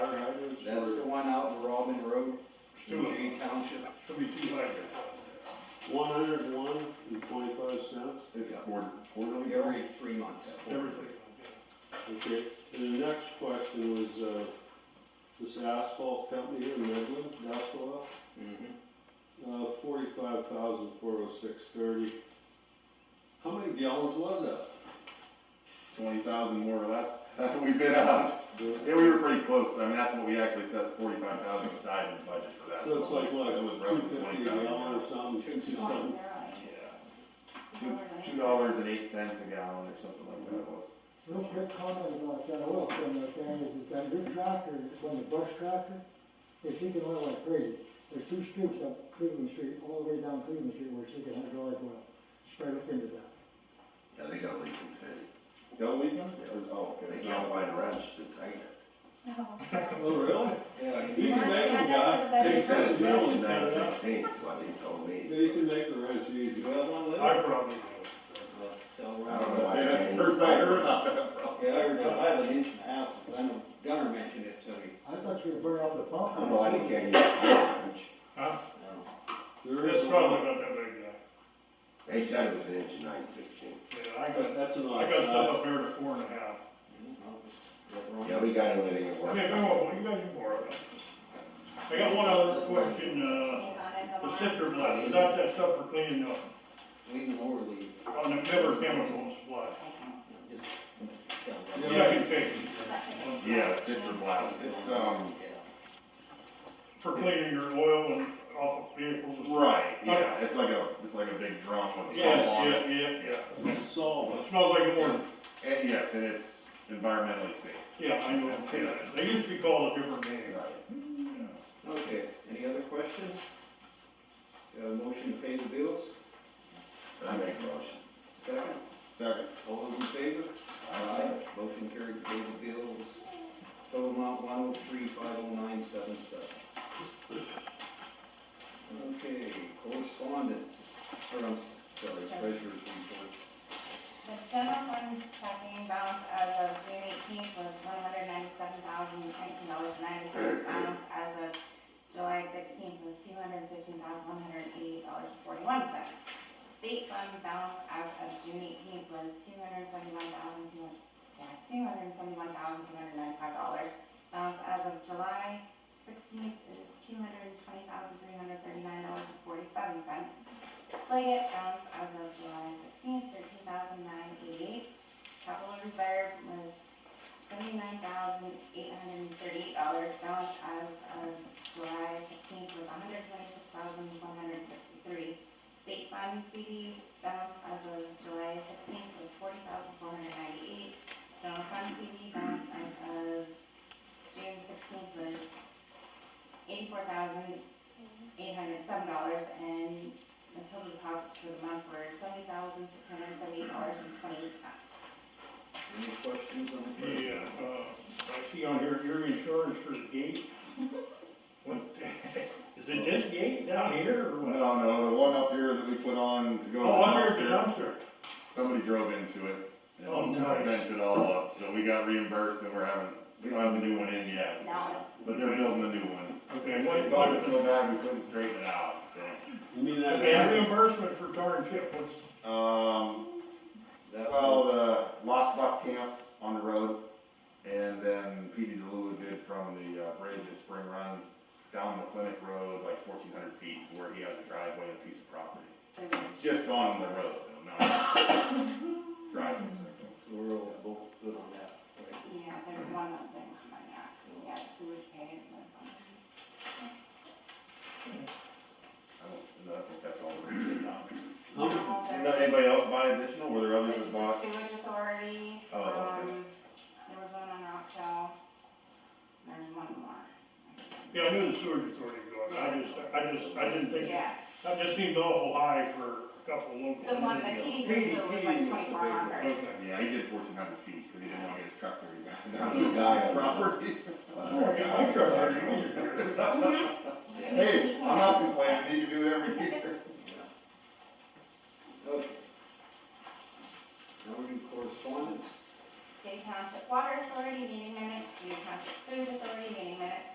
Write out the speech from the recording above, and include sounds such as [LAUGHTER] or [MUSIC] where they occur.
Allegheny Township, thirty-two hundred, One hundred and one and twenty-five cents, It's quar- quarterly. every three months. Everything. okay. And the next question was, uh, this asphalt company here in Midland, Asphalt, Mhm. uh, forty-five thousand four oh six thirty. How many gallons was that? Twenty thousand more or less, that's what we bid out. Yeah, we were pretty close, I mean, that's what we actually set forty-five thousand aside in the budget for that. So it's like, what, It was two roughly fifty a 20,000. gallon or something? Two two something. something. Yeah, two dollars and eight cents a gallon or something like that was. Real quick comment about that oil thing right there is, is that your tractor, when the brush tractor, if she can oil like crazy, there's two streets up Cleveland Street, all the way down Cleveland Street where she can hydraulic oil, spread up into that. Yeah, they got a leaking tank. Still leaking? Or- Oh, okay. They can't find a wrench to tighten it. Oh, really? Yeah. You can make the guy. They said it's Really wrench cut nine it out. sixteen, is what they told Yeah, me. you can make the wrench easy. Well, one little. I probably Well, so, I don't know uh, why. Say that's the first I heard about that, bro. Yeah, I heard, I have an inch and a half, I know Gunner mentioned it to me, I thought you were burning up the pump. I don't know why they can't use a wrench. I don't know. There is It's a- probably not that big, yeah. They said it was an inch and nine sixteen. Yeah, I But got, that's an odd I got stuff size. up there to four and a half. I don't know. Is that Mm-hmm. wrong? Yeah, we got everything at work. Okay, go on, you got more of it. I got one other question, uh, the center blast, is that that stuff for cleaning up, Lean Lorley, on the Miller chemical supply? just. Yeah, I can take, [LAUGHS] Yeah, citra blast, it's, um, for cleaning your oil and off of vehicles and stuff. right, yeah, it's like a, it's like a big drum with a Yes, top on it. yeah, yeah, It's a yeah. solvent. It smells like morning. And yes, and it's environmentally safe. Yeah, I know, yeah. They used to be called a different name. Okay, any other questions? Uh, motion to pay the bills, I make a motion. second, Second. all those in favor? Motion carried to pay the bills, total amount one oh three five oh nine seven seven. Okay, correspondence, or I'm sorry, treasurer's report. The general fund checking balance as of June eighteenth was one hundred ninety-seven thousand nineteen dollars ninety-six. Balance as of July sixteenth was two hundred fifteen thousand one hundred eighty dollars forty-one cents. State fund balance as of June eighteenth was two hundred seventy-one thousand two hundred, yeah, two hundred seventy-one thousand two hundred ninety-five dollars. Balance as of July sixteenth is two hundred twenty thousand three hundred thirty-nine dollars and forty-seven cents. Leggett balance as of July sixteenth, thirteen thousand nine eighty-eight. Capital reserve was seventy-nine thousand eight hundred and thirty-eight dollars. Balance as of July sixteenth was one hundred twenty-six thousand one hundred sixty-three. State fund CD balance as of July sixteenth was forty thousand four hundred ninety-eight. General fund CD balance as of June sixteenth was eighty-four thousand eight hundred seven dollars. And the total deposits for the month were seventy thousand, six hundred and seventy-eight dollars and twenty-eight cents. Any questions on the treasurer's Yeah, report? uh, I see on here, your insurance for the gate. What, is it this gate down here or what? No, no, the one up here that we put on to go. Oh, to under the the dumpster, dumpster. Somebody drove into it. and Oh, nice. Bent it all up, so we got reimbursed and we're having, we don't have the new one in yet, Now, but they're building a new one. Okay, We what, bought it what, so bad we couldn't straighten it out, so. You mean that? okay, reimbursement for tar and chip, what's, Um, That well, uh, was- the Lost Buck Camp on the road, and then PD DeLulu did from the uh, bridge at Spring Run down the clinic road, like fourteen hundred feet, where he has a driveway and a piece of property. so we- Just on the road, though, not driving, so. So we're all both good on that, right? yeah, there's one other thing coming out, yeah, so we paid it. but- I don't, no, I think that's all we're gonna say now. How much- Now, Did there's- not anybody else buy additional, were there others there's that the bought? Sewage authority, Oh, okay. um, there was one on Rock Hill, and there's one more. yeah, I knew the sewage authority was going, I just, I just, I didn't think, Yeah, that just seemed awful high for a couple local. the one that he did was like twenty-four hundred. Okay. Yeah, he did fourteen hundred feet, because he didn't wanna get his truck there, he got. That was a guy on [LAUGHS] the- Property. Sure, get my truck, I can use it. Hey, I'm not complaining, you can do it every year. Okay. Now we do correspondence. Jay Township Water Authority meeting minutes, Jay Township Food Authority meeting